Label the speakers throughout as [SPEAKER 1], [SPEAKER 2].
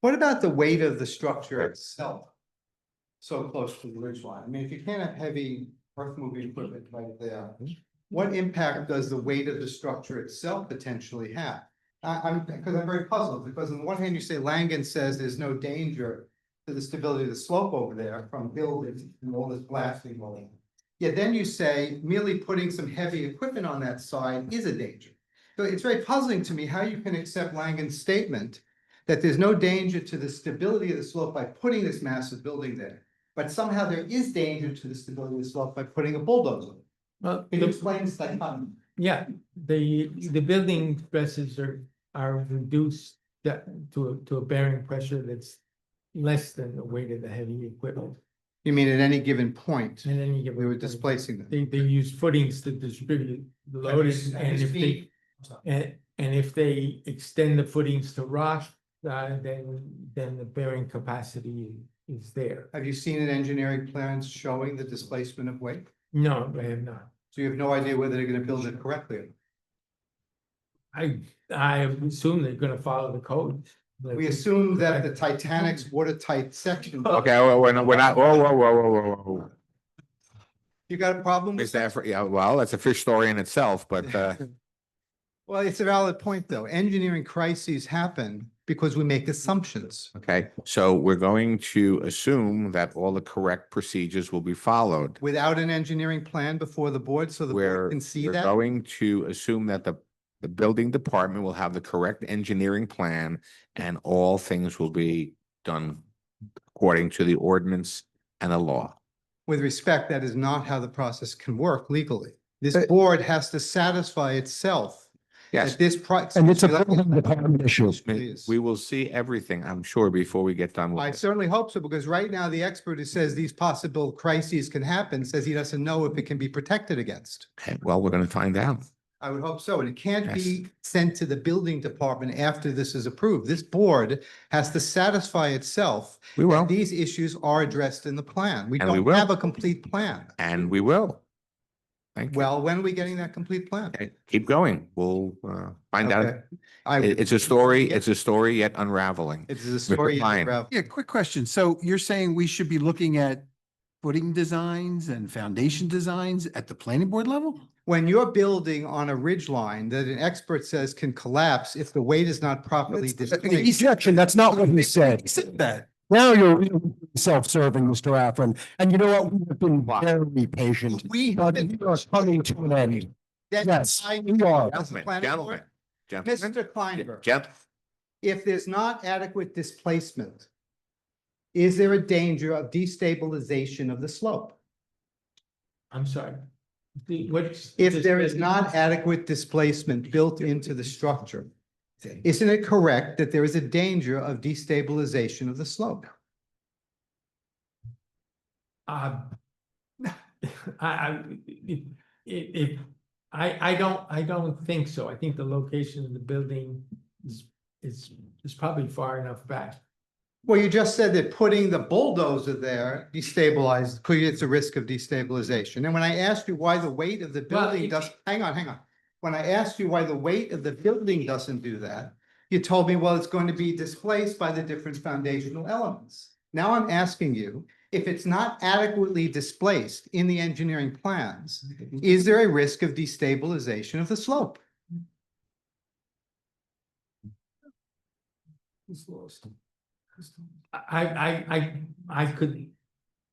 [SPEAKER 1] What about the weight of the structure itself? So close to the ridge line. I mean, if you can't have heavy earth moving equipment right there, what impact does the weight of the structure itself potentially have? I, I'm, because I'm very puzzled, because on the one hand, you say Langen says there's no danger to the stability of the slope over there from buildings and all this blasting going. Yet then you say merely putting some heavy equipment on that side is a danger. So it's very puzzling to me how you can accept Langen's statement that there's no danger to the stability of the slope by putting this massive building there. But somehow there is danger to the stability of the slope by putting a bulldozer.
[SPEAKER 2] Well,
[SPEAKER 1] Can you
[SPEAKER 2] the-
[SPEAKER 1] explain this dichotomy?
[SPEAKER 2] yeah, the, the building stresses are, are reduced that, to, a- to a bearing pressure that's less than the weight of the heavy equipment
[SPEAKER 1] You mean at any given point,
[SPEAKER 2] and then you get.
[SPEAKER 1] we were displacing them.
[SPEAKER 2] They, they use footings to distribute the load and- and if they, and, and if they extend the footings to rock, uh, then, then the bearing capacity is there.
[SPEAKER 1] Have you seen an engineering plans showing the displacement of weight?
[SPEAKER 2] No, I have not.
[SPEAKER 1] So you have no idea whether they're gonna build it correctly. or not.
[SPEAKER 2] I, I assume they're gonna follow the code.
[SPEAKER 1] We assume that the Titanic's watertight section,
[SPEAKER 3] Okay, well, we're not, we're not, whoa, whoa, whoa, whoa, whoa, whoa.
[SPEAKER 1] you got a problem with
[SPEAKER 3] Is that, for- yeah, well, that's a fish story in itself, but, uh,
[SPEAKER 1] Well, it's a valid point, though. Engineering crises happen because we make assumptions.
[SPEAKER 3] okay. So we're going to assume that all the correct procedures will be followed.
[SPEAKER 1] Without an engineering plan before the board, so the
[SPEAKER 3] We're,
[SPEAKER 1] board can see
[SPEAKER 3] we're
[SPEAKER 1] that.
[SPEAKER 3] going to assume that the, the building department will have the correct engineering plan and all things will be done according to the ordinance and the law.
[SPEAKER 1] With respect, that is not how the process can work legally. This board has to satisfy itself
[SPEAKER 3] Yes.
[SPEAKER 1] that this. pro-
[SPEAKER 4] And it's a
[SPEAKER 1] Excuse me, let
[SPEAKER 4] building
[SPEAKER 1] me-
[SPEAKER 4] department issue.
[SPEAKER 1] Please.
[SPEAKER 3] We will see everything, I'm sure, before we get done
[SPEAKER 1] I
[SPEAKER 3] with it.
[SPEAKER 1] certainly hope so, because right now the expert who says these possible crises can happen says he doesn't know if it can be protected against.
[SPEAKER 3] Okay, Well, we're gonna find out.
[SPEAKER 1] I would hope so, and it can't
[SPEAKER 3] Yes.
[SPEAKER 1] be sent to the building department after this is approved. This board has to satisfy itself
[SPEAKER 3] We will,
[SPEAKER 1] These issues are addressed in the plan. We
[SPEAKER 3] And we
[SPEAKER 1] don't
[SPEAKER 3] will.
[SPEAKER 1] have a complete plan.
[SPEAKER 3] and we will. Thank you.
[SPEAKER 1] Well, when are we getting that complete plan?
[SPEAKER 3] Okay, Keep going. We'll uh, find out.
[SPEAKER 1] Okay.
[SPEAKER 3] It-
[SPEAKER 1] I,
[SPEAKER 3] It's a story, it's a story yet unraveling.
[SPEAKER 1] it's a story. in
[SPEAKER 3] fine.
[SPEAKER 1] progress.
[SPEAKER 5] Yeah, quick question. So you're saying we should be looking at footing designs and foundation designs at the planning board level?
[SPEAKER 1] When you're building on a ridge line that an expert says can collapse if the weight is not properly
[SPEAKER 5] That's-
[SPEAKER 3] uh,
[SPEAKER 1] displaced.
[SPEAKER 4] Objection, that's not what we
[SPEAKER 5] He
[SPEAKER 4] said.
[SPEAKER 5] said that.
[SPEAKER 4] Now you're really self-serving, Mr. Affron. And you know what? We've been very patient.
[SPEAKER 1] We have
[SPEAKER 4] But
[SPEAKER 1] been.
[SPEAKER 4] we are coming to an end.
[SPEAKER 1] That's
[SPEAKER 4] Yes,
[SPEAKER 1] why
[SPEAKER 4] we are.
[SPEAKER 1] That's the
[SPEAKER 3] Gentlemen,
[SPEAKER 1] planning
[SPEAKER 3] gentlemen,
[SPEAKER 1] board.
[SPEAKER 3] gentlemen,
[SPEAKER 1] Mr. Kleinberg.
[SPEAKER 3] gent-
[SPEAKER 1] if there's not adequate displacement, is there a danger of destabilization of the slope?
[SPEAKER 2] I'm sorry. The, what's?
[SPEAKER 1] If there is not adequate displacement built into the structure, isn't it correct that there is a danger of destabilization of the slope?
[SPEAKER 2] Uh, I, I, it, it, I, I don't, I don't think so. I think the location of the building is, is, is probably far enough back.
[SPEAKER 1] Well, you just said that putting the bulldozer there destabilized, creates a risk of destabilization. And when I asked you why the weight of the
[SPEAKER 2] Well,
[SPEAKER 1] building
[SPEAKER 2] it-
[SPEAKER 1] does, hang on, hang on. When I asked you why the weight of the building doesn't do that, you told me, well, it's going to be displaced by the different foundational elements. Now I'm asking you, if it's not adequately displaced in the engineering plans, is there a risk of destabilization of the slope?
[SPEAKER 2] I, I, I, I could,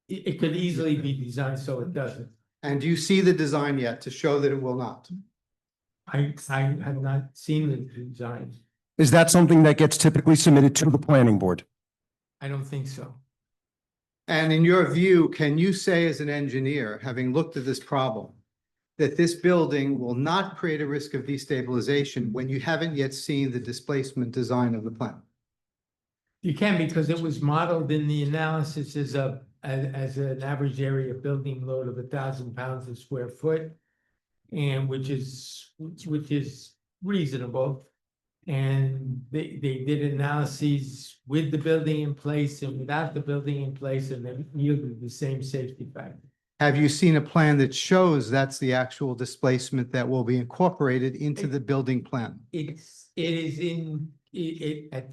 [SPEAKER 2] it, it could easily be designed so it doesn't.
[SPEAKER 1] And do you see the design yet to show that it will not?
[SPEAKER 2] I, I have not seen the design.
[SPEAKER 4] Is that something that gets typically submitted to the planning board?
[SPEAKER 2] I don't think so.
[SPEAKER 1] And in your view, can you say as an engineer, having looked at this problem, that this building will not create a risk of destabilization when you haven't yet seen the displacement design of the plan?
[SPEAKER 2] You can because it was modeled in the analysis as a, as, as an average area building load of a thousand pounds a square foot. And which is, which which is reasonable. And they, they did analyses with the building in place and without the building in place and they yielded the same safety factor.
[SPEAKER 1] Have you seen a plan that shows that's the actual displacement that will be incorporated into the building plan?
[SPEAKER 2] It's, it is in, it, it, at